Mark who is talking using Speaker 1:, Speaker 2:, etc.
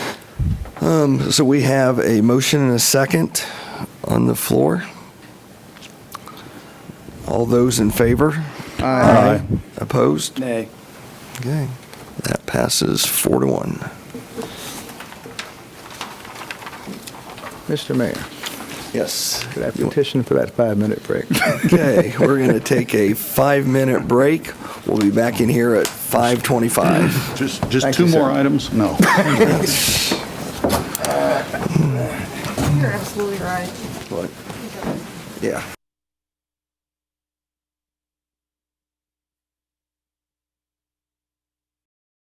Speaker 1: Um, So we have a motion and a second on the floor. All those in favor?
Speaker 2: Aye.
Speaker 1: Opposed?
Speaker 2: Nay.
Speaker 1: Okay, that passes four to one.
Speaker 3: Mr. Mayor,
Speaker 1: Yes.
Speaker 3: could I petition for that five-minute break?
Speaker 1: Okay, we're going to take a five-minute break. We'll be back in here at 5:25.
Speaker 2: Just, just
Speaker 3: Thank
Speaker 2: two
Speaker 3: you, sir.
Speaker 2: more items? No.
Speaker 4: You're absolutely right.
Speaker 1: What? Yeah.